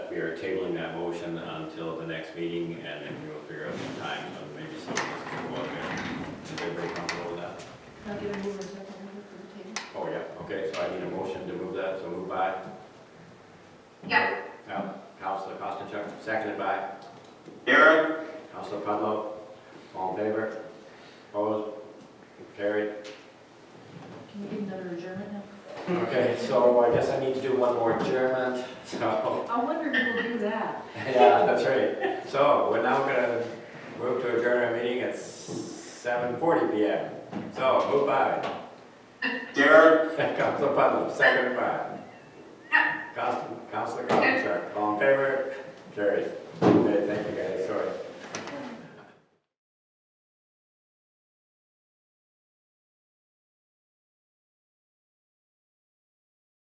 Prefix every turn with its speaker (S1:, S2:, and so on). S1: we are tabling that motion until the next meeting, and then we will figure out some time, and maybe some of us can go out there. Is everybody comfortable with that?
S2: I'll get a mover and second mover for the table.
S1: Oh, yeah, okay, so I need a motion to move that, so move by.
S3: Yeah.
S1: Now, Counselor Costichuk, seconded by
S4: Aaron,
S1: Counselor Pudlow. All in favor? Opposed? Carried.
S2: Can you give another adjournment now?
S1: Okay, so I guess I need to do one more adjournment, so,
S2: I wonder if we'll do that.
S1: yeah, that's right. So, we're now gonna move to adjourn our meeting at seven forty P M. So, move by,
S4: Darren,
S1: Counselor Pudlow, second by,